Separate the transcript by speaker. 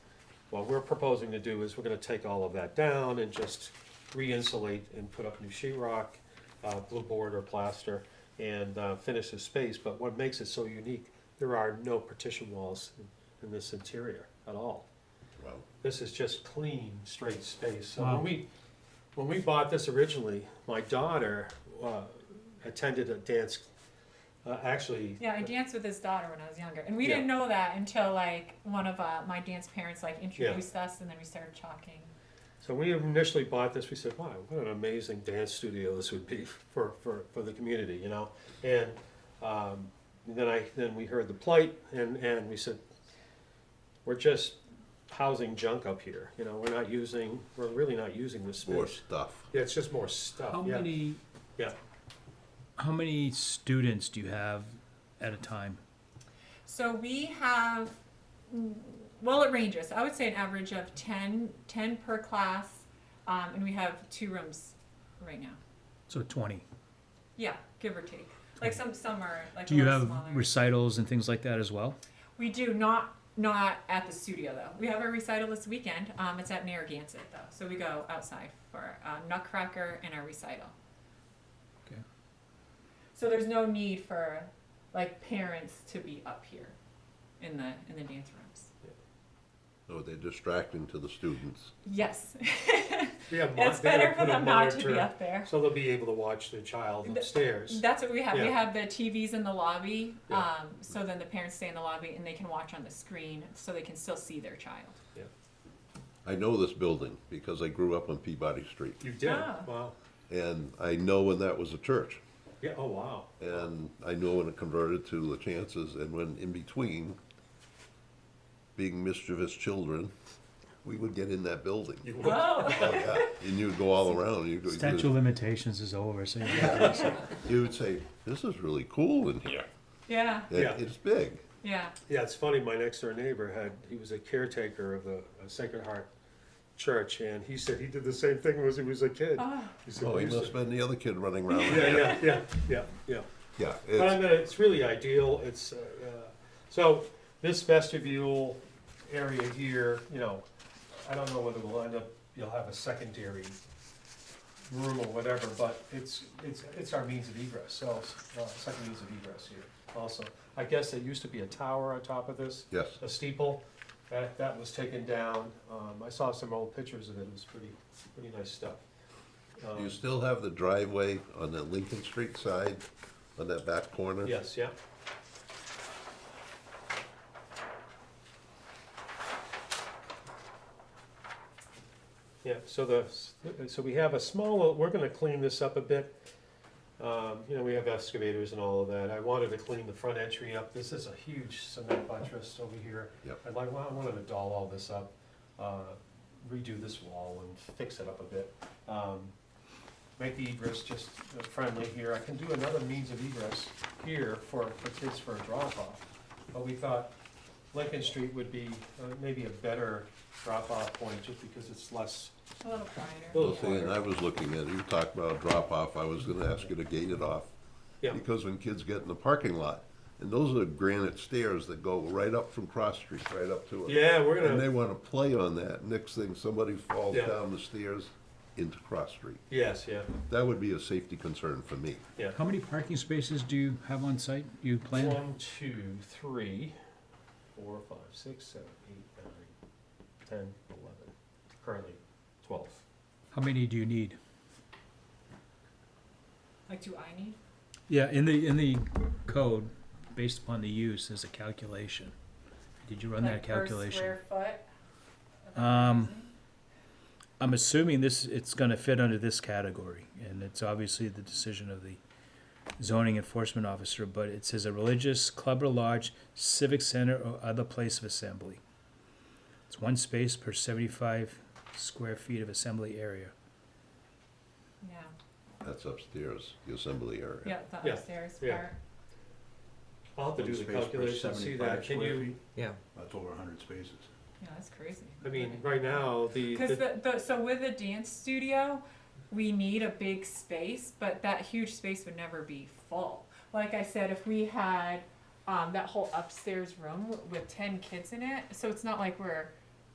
Speaker 1: What we're proposing to do is we're gonna take all of that down and just re-insulate and put up new sheetrock, uh, blue board or plaster, and, uh, finish the space, but what makes it so unique, there are no partition walls in- in this interior at all.
Speaker 2: Wow.
Speaker 1: This is just clean, straight space. So
Speaker 3: Wow.
Speaker 1: when we, when we bought this originally, my daughter uh, attended a dance, uh, actually.
Speaker 4: Yeah, I danced with his daughter when I was younger, and we
Speaker 1: Yeah.
Speaker 4: didn't know that until like one of uh, my dance parents like introduced us, and then we started talking.
Speaker 1: So when we initially bought this, we said, wow, what an amazing dance studio this would be for, for, for the community, you know? And um, then I, then we heard the plight and, and we said, we're just housing junk up here, you know, we're not using, we're really not using this
Speaker 2: More
Speaker 1: space.
Speaker 2: stuff.
Speaker 1: Yeah, it's just more stuff,
Speaker 3: How
Speaker 1: yeah.
Speaker 3: many?
Speaker 1: Yeah.
Speaker 3: How many students do you have at a time?
Speaker 4: So we have, well, it ranges. I would say an average of 10, 10 per class, um, and we have two rooms right now.
Speaker 3: So twenty.
Speaker 4: Yeah, give or take. Like some some are like
Speaker 3: Do
Speaker 4: a
Speaker 3: you
Speaker 4: little
Speaker 3: have
Speaker 4: smaller.
Speaker 3: recitals and things like that as well?
Speaker 4: we do not not at the studio though. We have a recital this weekend. Um, it's at Narragansett though, so we go outside for uh, Nutcracker and our recital.
Speaker 3: Okay.
Speaker 4: So there's no need for like parents to be up here in the in the dance rooms.
Speaker 2: No, they're distracting to the students.
Speaker 4: Yes,
Speaker 1: We have mon-
Speaker 4: it's
Speaker 1: they gotta
Speaker 4: better for
Speaker 1: put a
Speaker 4: them not to be
Speaker 1: monitor-
Speaker 4: up there.
Speaker 1: So they'll be able to watch the child
Speaker 4: Th-
Speaker 1: upstairs.
Speaker 4: That's what we have. We
Speaker 1: Yeah.
Speaker 4: have the TVs in the lobby,
Speaker 1: Yeah.
Speaker 4: um, so then the parents stay in the lobby and they can watch on the screen, so they can still see their child.
Speaker 2: I know this building because I grew up on Peabody Street.
Speaker 1: You did?
Speaker 4: Ah.
Speaker 1: Wow.
Speaker 2: And I know when that was a church.
Speaker 1: Yeah, oh, wow.
Speaker 2: And I know when it converted to La Chances and when in between, being mischievous children, we would get in that building.
Speaker 4: Whoa!
Speaker 2: Oh, yeah. And you'd go all around. You'd, go,
Speaker 3: Statute of
Speaker 2: you'd,
Speaker 3: limitations is over, so you
Speaker 2: you'd say, this is really cool in here.
Speaker 4: yeah,
Speaker 2: And
Speaker 1: Yeah.
Speaker 2: It's big.
Speaker 4: yeah.
Speaker 1: Yeah, it's funny, my next door neighbor had, he was a caretaker of the uh, Sacred Heart Church, and he said he did the same thing when he was a kid. He said,
Speaker 2: Oh,
Speaker 1: we
Speaker 2: he
Speaker 1: used
Speaker 2: must have
Speaker 1: to-
Speaker 2: been the other kid running around.
Speaker 1: Yeah, yeah, yeah, yeah, yeah.
Speaker 2: Yeah,
Speaker 1: But I
Speaker 2: it's,
Speaker 1: mean, it's really ideal, it's, uh, uh, so, this vestibule area here, you know, I don't know whether we'll end up, you'll have a secondary room or whatever, but it's, it's, it's our means of egress, so, uh, second means of egress here also. I guess there used to be a tower on top of this.
Speaker 2: yes.
Speaker 1: a steeple. That, that was taken down. Um, I saw some old pictures of it. It was pretty, pretty nice stuff.
Speaker 2: You still have the driveway on the Lincoln Street side, on that back corner?
Speaker 1: Yes, yeah. Yeah, so the, so we have a small, we're gonna clean this up a bit. Um, you know, we have excavators and all of that. I wanted to clean the front entry up. This is a huge cement buttress over here.
Speaker 2: Yep.
Speaker 1: I'd like, I wanted to doll all this up, uh, redo this wall and fix it up a bit. Um, make the egress just uh, friendly here. I can do another means of egress here for, for kids for a drop-off. But we thought Lincoln Street would be uh, maybe a better drop-off point, just because it's less,
Speaker 4: A little
Speaker 1: a
Speaker 4: quieter.
Speaker 1: little
Speaker 2: Well, see, and I
Speaker 1: harder.
Speaker 2: was looking at, it. you talked about drop-off, I was gonna ask you to gate it off.
Speaker 1: Yeah.
Speaker 2: Because when kids get in the parking lot, and those are granite stairs that go right up from Cross Street, right up to it.
Speaker 1: Yeah, we're
Speaker 2: And they
Speaker 1: gonna,
Speaker 2: wanna play on that, next thing, somebody falls
Speaker 1: Yeah.
Speaker 2: down the stairs into Cross Street.
Speaker 1: yes, yeah,
Speaker 2: That would be a safety concern for me.
Speaker 1: yeah.
Speaker 3: How many parking spaces do you have on site? You plan?
Speaker 1: One, two, three, four, five, six, seven, eight, nine, ten, eleven, currently twelve.
Speaker 3: How many do you need?
Speaker 4: Like, do I need?
Speaker 3: Yeah, in the in the code, based upon the use, there's a calculation. Did you run
Speaker 4: like,
Speaker 3: that
Speaker 4: per
Speaker 3: calculation?
Speaker 4: square foot? Is that
Speaker 3: Um,
Speaker 4: crazy?
Speaker 3: I'm assuming this it's going to fit under this category, and it's obviously the decision of the zoning enforcement officer. But it says a religious club or lodge, civic center, or other place of assembly. It's one space per 75 square feet of assembly area.
Speaker 4: Yeah,
Speaker 2: That's upstairs, the assembly area.
Speaker 4: yeah, the
Speaker 1: Yeah,
Speaker 4: upstairs
Speaker 1: yeah.
Speaker 4: part.
Speaker 1: I'll have to do the calculation, see that, can you,
Speaker 5: Yeah.
Speaker 6: That's over hundred spaces.
Speaker 4: Yeah, that's crazy.
Speaker 1: I mean, right now, the.
Speaker 4: Because
Speaker 1: the-
Speaker 4: the, the, so with the dance studio, we need a big space, but that huge space would never be full. Like I said, if we had um, that whole upstairs room with 10 kids in it, so it's not like we're